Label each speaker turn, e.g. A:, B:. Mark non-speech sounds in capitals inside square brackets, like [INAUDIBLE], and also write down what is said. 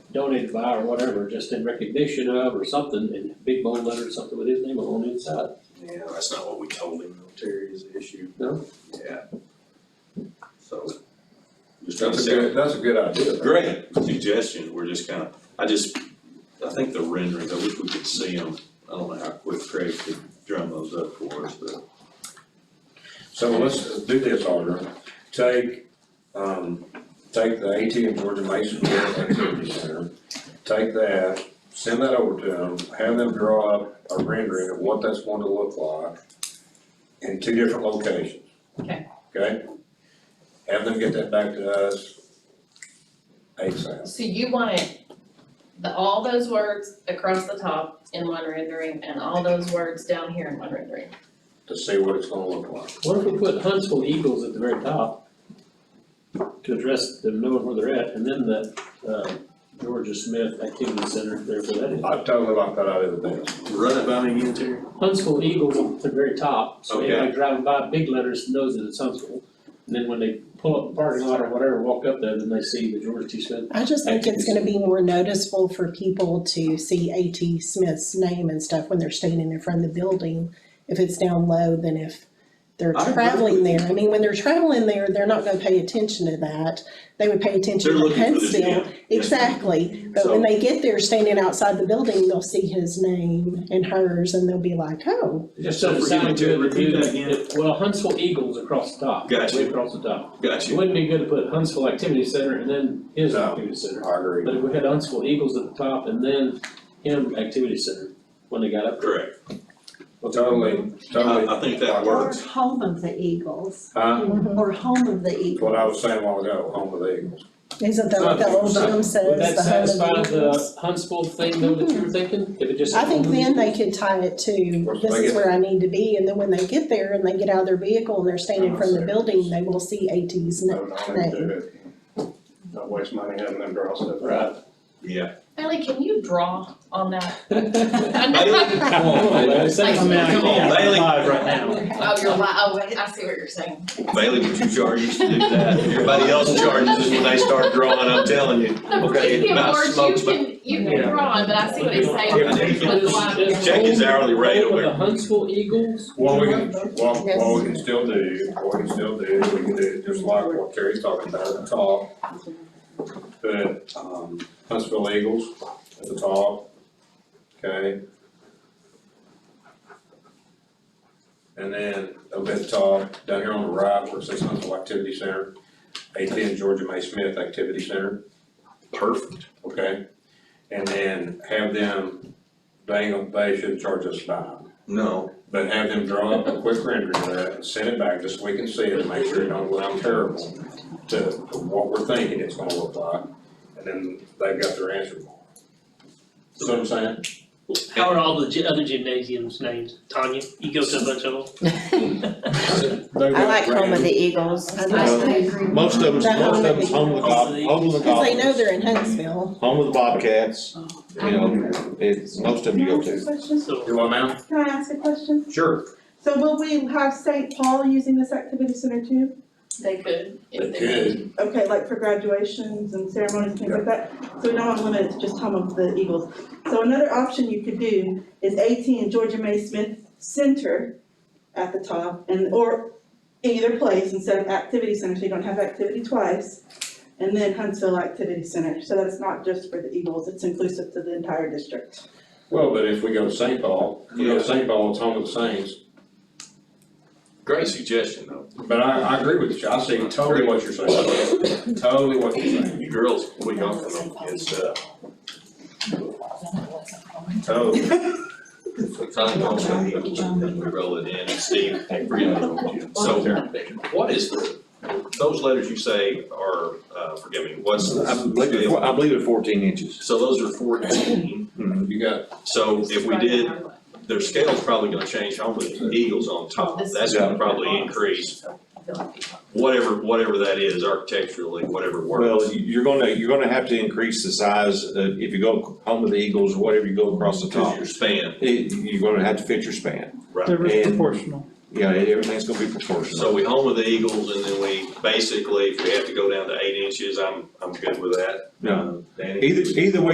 A: donated by or whatever, just in recognition of or something, in big bold letters, something with his name on the inside.
B: Yeah, that's not what we told him, though, Terry, is the issue.
A: No?
B: Yeah. So. Just trying to
C: That's a
B: say,
C: good, that's a good idea.
B: great suggestion, we're just kind of, I just, I think the renderings, I wish we could see them. I don't know how quick Craig could drum those up for us, but
C: So let's do this, Alder, take, um, take the ATM Georgia Mason Grove Activity Center, take that, send that over to them, have them draw up a rendering of what that's going to look like in two different locations.
D: Okay.
C: Okay? Have them get that back to us ASAP.
D: So you want it, the, all those words across the top in one rendering and all those words down here in one rendering.
C: to see what it's gonna look like.
A: What if we put Huntsville Eagles at the very top? To address them, knowing where they're at, and then the, uh, Georgia Smith Activity Center, wherever that is.
C: I totally like that idea of this.
B: run it by me again, Terry.
A: Huntsville Eagles at the very top, so
B: Okay.
A: anybody driving by, big letters knows that it's Huntsville. And then when they pull up the parking lot or whatever, walk up there, then they see the Georgia T. Smith.
E: I just think it's gonna be more noticeable for people to see A.T. Smith's name and stuff when they're standing in front of the building, if it's down low than if they're
B: I agree
E: traveling
B: with you.
E: there. I mean, when they're traveling there, they're not gonna pay attention to that. They would pay attention
B: They're
E: to
B: looking for the
E: Huntsville.
B: gym.
E: Exactly, but
B: So-
E: when they get there, standing outside the building, they'll see his name and hers, and they'll be like, oh,
A: Just
B: So
A: so it
B: for
A: sounded
B: you to
A: good.
B: repeat that
A: dude,
B: again.
A: it- Well, Huntsville Eagles across the top,
B: Gotcha.
A: way across the top.
B: Got
A: It
B: you.
A: wouldn't be good to put Huntsville Activity Center and then his
C: No.
A: activity center.
C: I
A: But if
C: agree.
A: we had Huntsville Eagles at the top and then him Activity Center when they got up.
B: Correct.
C: Totally,
B: I,
C: totally.
B: I think that
F: Or
B: works.
F: Home of the Eagles,
C: Huh?
B: Uh-huh.
F: or Home of the
C: That's
F: Eagles.
C: what I was saying a while ago, home of the Eagles.
E: isn't that what the old gym says?
A: Would that
E: the home of the
A: satisfy
E: Eagles?"
A: the Huntsville thing though that you were thinking? If it just.
E: I think then they could tie it to,
C: Once
E: this
C: they
E: is
C: get-
E: where I need to be, and then when they get there and they get out of their vehicle and they're standing from the building, they will see AT's
G: No,
E: name.
G: no, I didn't do it. Not waste money having them draw stuff.
A: Right.
B: Yeah.
D: Ellie, can you draw on that?
A: [LAUGHS]
D: I
B: Bailey,
D: know,
B: come on, Bailey.
D: I'm out.
B: Come on, Bailey.
D: [LAUGHS] oh, you're li- oh, I see what you're saying.
B: Bailey, would you charge us to do that? Everybody else charges us when they start drawing, I'm telling you. Okay,
D: The
B: about smokes,
D: words you can, you can
A: Yeah.
D: draw, but I see what he's saying.
B: Yeah.
D: With the line.
B: Check his hourly rate
A: With
B: over
A: the
B: there.
A: Huntsville Eagles?
C: What we can, what, what we can still do, what we can still do, we can do just like what Terry's talking about at the top. Put, um, Huntsville Eagles at the top, okay? And then over at the top, down here on the right, where it says Huntsville Activity Center, ATN Georgia May Smith Activity Center.
B: Perfect.
C: okay? And then have them, they, they should charge us five,
B: No.
C: but have them draw up a quick rendering of that and send it back, just so we can see it, and make sure it don't look terrible to to what we're thinking it's gonna look like, and then they've got their answer. See what I'm saying?
H: How are all the gy- other gymnasiums named? Tanya, you go to a bunch of them?
C: I
F: Eagles.
E: I
D: I
E: like-
D: agree.
I: Most of them's,
E: That
I: most of
E: home
I: them's home of the Bob, home of the
E: Cause they know
I: Goblins,
E: they're in Huntsville.
I: home of the Bobcats, you know, it's, most of them you go to.
H: So,
C: Do I now?
J: Can I ask a question?
C: Sure.
J: So will we have St. Paul using this activity center too?
D: They could, if
C: They
D: they.
C: could,
J: Okay, like for graduations and ceremonies, things like that? So we don't want to limit it to just home of the Eagles. So another option you could do is AT and Georgia May Smith Center at the top and, or either place instead of activity center, so you don't have activity twice. And then Huntsville Activity Center, so that it's not just for the Eagles, it's inclusive to the entire district.
C: well, but if we go to St. Paul, if we go to St. Paul, it's home of the Saints,
B: Great suggestion, though.
C: but I, I agree with you, I see totally what you're saying, totally what you're saying,
B: You girls, we go for them kids, uh,
C: totally.
B: I think most of them, we roll it in, and Steve, hey, forget it. So, what is the, those letters you say are, uh, forgive me, what's? the-
I: I believe, it- I believe it's fourteen inches.
B: So those are fourteen,
C: You got
B: so if we did their scale's probably gonna change, home with the Eagles on top, that's gonna probably increase whatever, whatever that is architecturally, whatever works.
I: Well, you- you're gonna, you're gonna have to increase the size, uh, if you go home of the Eagles, whatever you go across the
B: Cause
I: top.
B: your span,
I: It, you're gonna have to fit your span.
B: right,
I: And-
K: proportional.
B: Yeah, everything's gonna be proportional.
A: So we home of the Eagles and then we basically, if we have to go down to eight inches, I'm, I'm good with that.
B: Yeah.
A: um, Danny?
B: Either, either way